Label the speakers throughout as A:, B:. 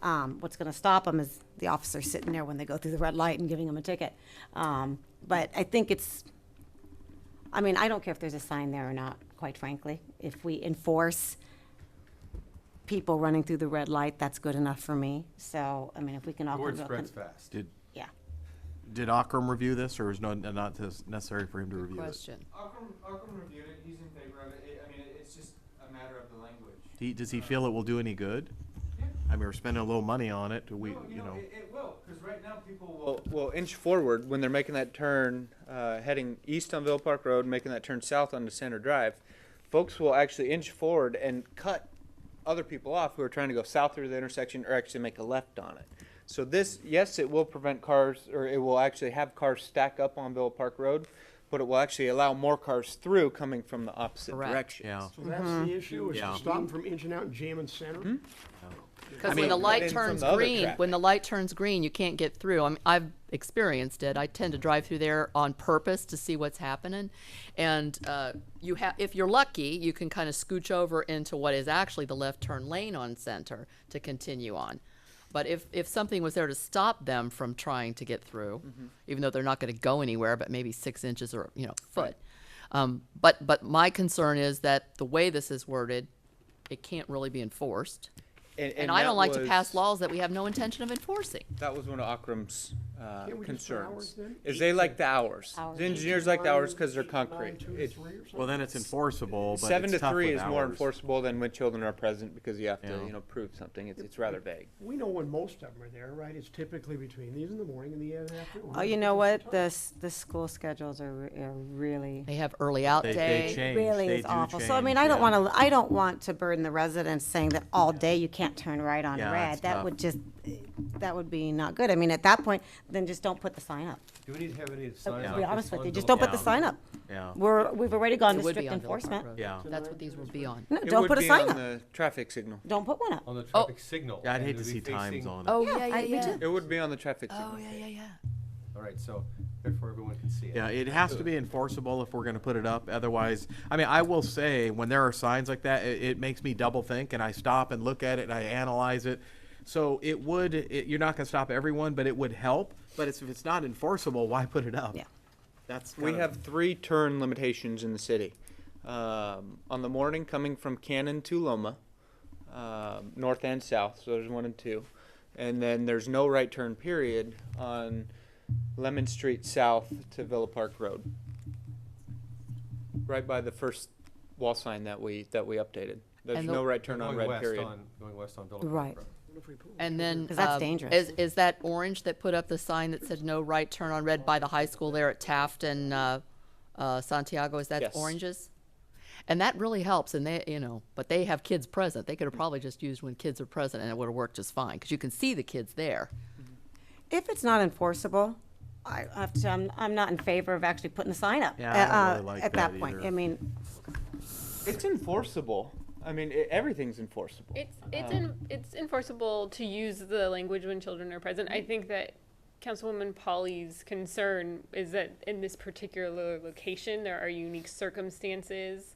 A: Um, what's going to stop them is the officer sitting there when they go through the red light and giving them a ticket. Um, but I think it's, I mean, I don't care if there's a sign there or not, quite frankly. If we enforce people running through the red light, that's good enough for me. So, I mean, if we can all.
B: The
A: come
B: word
A: to a
B: spreads
A: con-
B: fast.
C: Did,
A: Yeah.
C: did Akram review this, or is no- not this- necessary for him to review it?
D: Question.
E: Akram, Akram reviewed it, he's in favor of it, It- I mean, it- it's just a matter of the language.
C: Do he- Does he feel it will do any good?
E: Yeah.
C: I mean, we're spending a little money on it, do we,
E: No,
C: you know,
E: Oh, It, it will, because right now people will. Will inch forward when they're making that turn, uh, heading east on Ville Park Road, making that turn south onto Center Drive. Folks will actually inch forward and cut other people off who are trying to go south through the intersection or actually make a left on it. So this, yes, it will prevent cars, or it will actually have cars stack up on Ville Park Road, but it will actually allow more cars through coming from the opposite
D: Correct.
E: directions.
C: yeah.
F: So that's
A: Mm-hmm.
F: the issue, is
C: Yeah. Hmm?
F: to stop them from inching out and jamming center?
D: Because
E: mean,
D: when the light
E: then from
D: turns
E: the other
D: green,
E: traffic.
D: when the light turns green, you can't get through. I mean, I've experienced it. I tend to drive through there on purpose to see what's happening, and uh, you have, if you're lucky, you can kind of scooch over into what is actually the left turn lane on Center to continue on. But if if something was there to stop them from trying to get through,
E: Mm-hmm.
D: even though they're not going to go anywhere, but maybe six inches or you know foot. Um, but but my concern is that the way this is worded, it can't really be enforced. And I
E: that
D: don't like to pass
E: was-
D: laws that we have no intention of enforcing.
E: That was one of Akram's uh,
F: Can't we just put hours
E: concerns.
F: then?
E: Is they like the hours.
A: Hours.
E: The engineers like the hours because they're
F: Eight to nine,
E: concrete.
F: two to
E: It-
F: three or something?
C: well, then it's enforceable, but
E: Seven to
C: it's tough
E: three
C: with
E: is more
C: hours.
E: enforceable than when children are present because you have to,
C: Yeah.
E: you know, prove something. It's, it's rather vague.
F: We know when most of them are there, right? It's typically between these in the morning and the end afternoon.
A: Oh, you know what? The, s- the school schedules are, re- are really.
D: They have early out
C: They,
D: day.
C: they change,
A: really
C: they
A: is
C: do
A: awful. So I mean,
C: change,
A: I don't
C: yeah.
A: want to, I don't want to burden the residents saying that all day you can't turn right on
C: Yeah,
A: red.
C: it's
A: That
C: tough.
A: would just, that would be not good. I mean, at that point, then just don't put the sign up.
B: Do we need to have any
A: To
B: signs?
A: be honest with you, just don't put the
C: Yeah.
A: sign up.
C: Yeah.
A: We're, we've already gone
D: It
A: to
D: would be
A: strict
D: on Villa Park
A: enforcement.
D: Road.
C: Yeah.
D: That's what these will be on.
A: No,
E: It
A: don't
E: would
A: put a
E: be
A: sign
E: on
A: up.
E: the Traffic signal.
A: Don't put one up.
B: On the traffic signal.
C: Oh. Yeah, I'd
B: and
C: hate
B: it
C: to
B: would
C: see
B: be
C: times
B: facing-
C: on it.
D: Oh,
A: Yeah,
D: yeah,
A: I-
D: yeah,
A: we
D: yeah.
A: do.
E: It would be on the traffic signal.
D: Oh, yeah, yeah, yeah.
B: All right, so therefore everyone can see it.
C: Yeah, it has to be enforceable if we're gonna put it up, otherwise, I mean, I will say, when there are signs like that, it, it makes me double think, and I stop and look at it, and I analyze it. So it would, it, you're not gonna stop everyone, but it would help, but it's, if it's not enforceable, why put it up?
A: Yeah.
C: That's.
E: We
C: kinda-
E: have three turn limitations in the city. Um, on the morning, coming from Cannon to Loma, um, north and south, so there's one and two. And then there's no right turn period on Lemon Street South to Villa Park Road. Right by the first wall sign that we, that we updated. There's
D: And the-
E: no right
B: They're
E: turn on
B: going
E: red
B: west
E: period.
B: on- Going west on Villa Park
A: Right.
B: Road.
F: What if we put-
D: And then
A: 'Cause that's
D: uh,
A: dangerous.
D: Is is that orange that put up the sign that said no right turn on red by the high school there at Taft and uh, uh, Santiago? Is that
E: Yes.
D: oranges? And that really helps. And they, you know, but they have kids present. They could have probably just used when kids are present, and it would have worked just fine because you can see the kids there.
A: If it's not enforceable, I I have to, I'm, I'm not in favor of actually putting the sign up.
C: Yeah, I don't
A: uh,
C: really like
A: At
C: that
A: that point,
C: either.
A: I mean,
E: It's enforceable. I mean, i everything's enforceable.
G: It's it's en- it's enforceable to use the language when children are present. I think that Councilwoman Polly's concern is that in this particular location there are unique circumstances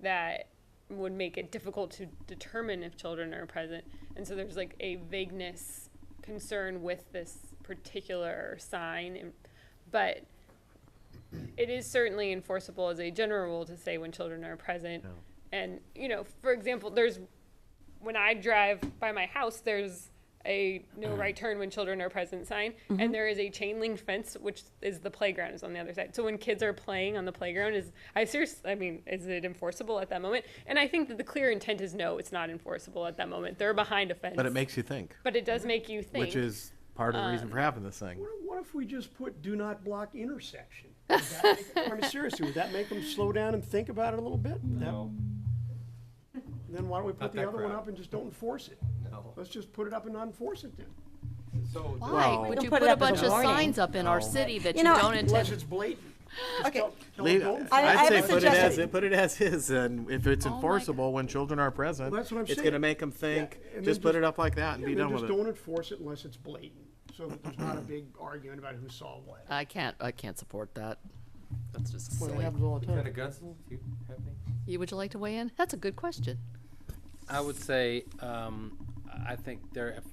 G: that would make it difficult to determine if children are present. And so there's like a vagueness concern with this particular sign and- but it is certainly enforceable as a general rule to say when children are present. And, you know, for example, there's when I drive by my house, there's a
C: Uh-huh.
G: no right turn when children are present sign, and there is a chain link fence, which is the playground is on the other side. So when kids are playing on the playground, is I seriously, I mean, is it enforceable at that moment? And I think that the clear intent is no, it's not enforceable at that moment. They're behind a fence,
C: But it makes you think,
G: But it does make you think.
C: which is part of the reason for having this thing.
F: What if- What if we just put do not block intersection? Would that make- I mean, seriously, would that make them slow down and think about it a little bit? That-
B: No,
F: Then why don't we
B: Not
F: put the
B: that
F: other one
B: crowd.
F: up and just don't enforce it?
B: no.
F: Let's just put it up and not enforce it then.
B: So
D: Why
C: Well- We
D: would
A: can
D: you
A: put it
D: put, a
A: up as a
D: bunch of
A: warning.
D: signs up in our city that
A: You
D: you,
A: know,
D: don't
F: Unless
D: intend?
F: it's blatant. Just
A: Okay.
F: tell- tell
C: Leave,
F: them, "Don't
A: I- I
C: I'd
A: have
C: say
A: a
C: put it as,
A: suggestion.
C: put it as is, and if it's
D: Oh my God.
C: enforceable when children are present,
F: Well, that's what I'm
C: it's
F: saying.
C: gonna make them think,
F: and then
C: just put
F: just-
C: it up like that and
F: Yeah,
C: be
F: I mean,
C: done with
F: just
C: it.
F: don't enforce it unless it's blatant, so that there's not a big argument about who saw what.
D: I can't. I can't support that. That's just
F: Well, it
D: silly.
F: happens all the time.
B: Lieutenant Gunsel, do you have any?
D: You- Would you like to weigh in? That's a good question.
H: I would say, um, I think there, if